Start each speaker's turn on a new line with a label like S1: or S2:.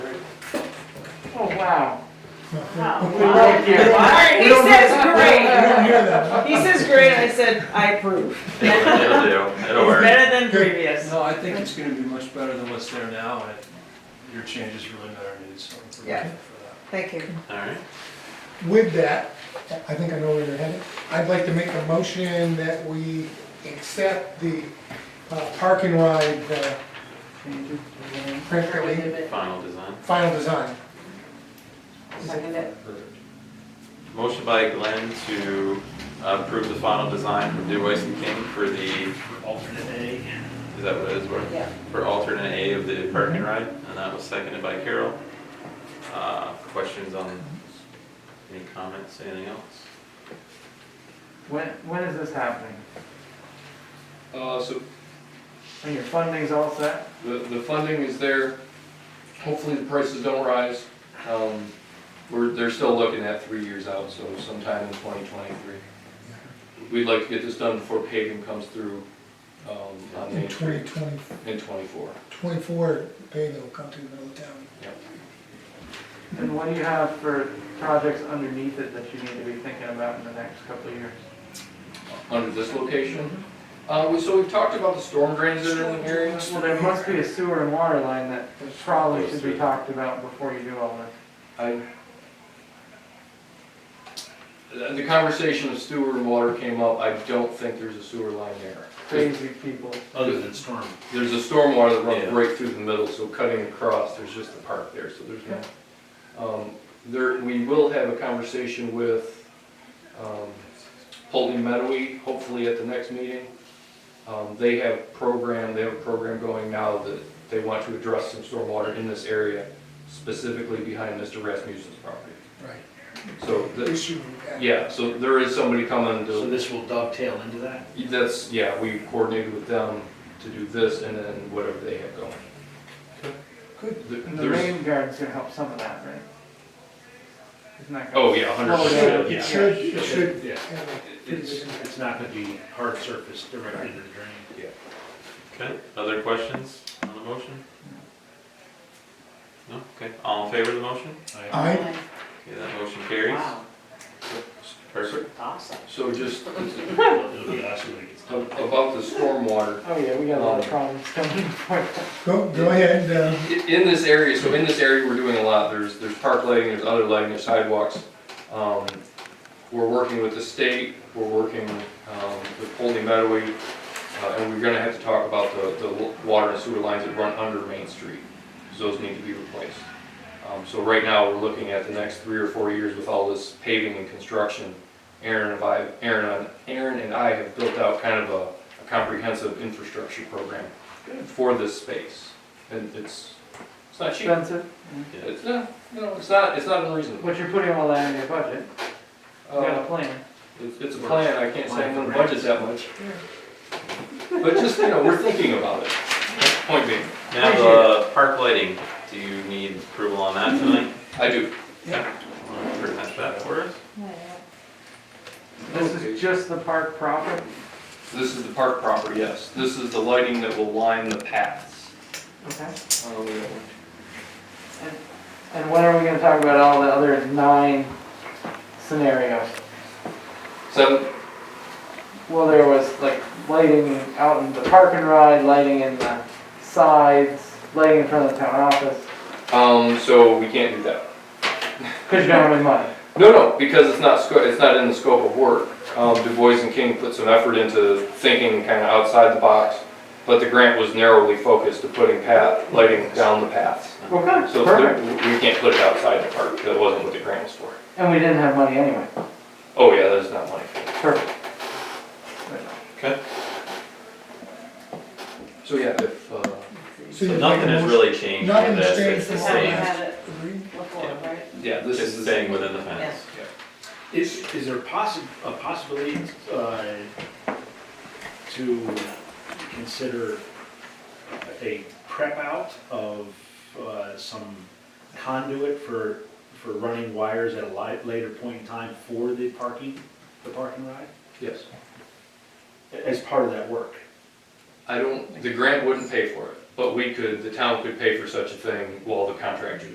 S1: Oh, Wow.
S2: Wow.
S1: Thank you.
S2: Alright, he says great.
S3: hear that.
S2: He says great, I said, I approve.
S4: It'll do, it'll
S2: It's
S4: work.
S2: better than previous.
S5: No, I think it's gonna be much better than what's there now, and your changes really met our needs, so I'm
S2: Yeah.
S5: grateful for that.
S2: Thank you.
S4: Alright,
S3: With that, I think I know where you're headed. I'd like to make a motion that we accept the uh, park and ride uh, print release,
S4: final design.
S3: final design.
S2: Second it.
S4: Motion by Glenn to approve the final design from Dubois and King for the. Alternate A. Is that what it is, What-
S2: Yeah.
S4: For alternate A of the park and ride, and that was seconded by Carol. Uh, questions on, any comments, anything else?
S1: When, when is this happening?
S6: Uh, so
S1: And your funding's all set?
S6: the, the funding is there, hopefully the prices don't rise. Um, we're, they're still looking at three years out, so sometime in twenty twenty-three. We'd like to get this done before paving comes through, um, on
S3: In
S6: Main Street
S3: 2020,
S6: in twenty-four.
S3: 24, paving will come to the middle of town.
S1: And what do you have for projects underneath it that you need to be thinking about in the next couple of years?
S6: Under this location, uh, we, so we've talked about the storm drains that are in the area.
S1: Well, there must be a sewer and water line that probably should be talked about before you do all this.
S6: I, the the conversation of sewer and water came up, I don't think there's a sewer line there.
S1: Crazy people.
S5: Other than storm.
S6: There's a stormwater that
S4: Yeah.
S6: runs right through the middle, so cutting across, there's just a park there, so there's no. Um, There, we will have a conversation with um, Holton Meadowy, hopefully at the next meeting. Um, They have program, they have a program going now that they want to address some stormwater in this area, specifically behind Mr. Rasmussen's property.
S3: Right.
S6: So, the-
S3: Issue. uh,
S6: yeah, so there is somebody coming to.
S5: So this will dovetail into that?
S6: That's, yeah, we coordinated with them to do this and then whatever they have going.
S3: Good.
S6: There-
S1: And the
S6: There's,
S1: rain garden's gonna help some of that, right? Isn't that? gonna-
S6: oh, yeah, hundred
S1: Oh,
S6: percent,
S1: yeah.
S3: It
S6: yeah.
S3: should, it should
S5: Yeah.
S3: have a pretty good
S5: It's,
S3: impact.
S5: it's not gonna be hard surface directly into the drain.
S4: Okay, other questions on the motion? No, okay, all in favor of the motion?
S5: I-
S3: Aye.
S4: Okay, that motion carries. Perfect.
S2: awesome.
S6: So just
S5: It'll be awesome when it gets
S6: a-
S5: done.
S6: about the stormwater,
S1: Oh, yeah, we got a
S6: Um,
S1: lot of problems coming for
S3: Go, go ahead, uh,
S6: I- in this area, so in this area, we're doing a lot, there's, there's park lighting, there's other lighting, there's sidewalks. Um, We're working with the state, we're working um, with Holy Meadowy, uh, and we're gonna have to talk about the, the water and sewer lines that run under Main Street, 'cause those need to be replaced. Um, So right now, we're looking at the next three or four years with all this paving and construction. Aaron and I, Aaron, and- Aaron and I have built out kind of a a comprehensive infrastructure program for this space. And it's, it's not cheap.
S1: expensive.
S6: It's not, no, it's not, it's not unreasonable.
S1: But you're putting all that in your budget, you got a
S6: Uh,
S1: plan.
S6: It's, it's a plan, I can't say I'm gonna budget that much. But just, you know, we're thinking about it. Point being,
S4: Now, the uh, park lighting, do you need approval on that tonight?
S6: I do.
S4: Wanna Present that for us?
S1: This is just the park proper,
S6: This is the park proper, yes. This is the lighting that will line the paths.
S1: okay?
S6: Um,
S1: And when are we gonna talk about all the other nine scenarios?
S6: Seven,
S1: Well, there was like lighting out in the park and ride, lighting in the sides, lighting in front of the town office,
S6: um, so we can't do that.
S1: cause you don't have any money.
S6: No, no, because it's not, sco- it's not in the scope of work. Um, Du Bois and King put some effort into thinking kind of outside the box, but the grant was narrowly focused to putting path, lighting down the paths.
S1: Okay,
S6: So there-
S1: perfect.
S6: we can't put it outside the park, that wasn't what the grant was for.
S1: And we didn't have money anyway,
S6: Oh, yeah, that is not money.
S1: perfect.
S6: So, yeah, if, uh,
S3: so
S4: So
S3: you
S4: nothing has really changed with
S3: Nothing's
S4: this,
S3: changed
S4: it's the
S3: from
S2: How we
S4: same,
S3: last-
S2: had it
S3: agree?
S2: before, right?
S6: yeah, this is.
S4: just staying within the fence.
S5: Is, is there possi, a possibility, uh, to consider a prep out of, uh, some conduit for, for running wires at a li- later point in time for the parking, the parking ride?
S6: Yes.
S5: As part of that work?
S6: I don't, the grant wouldn't pay for it, but we could, the town could pay for such a thing while the contractor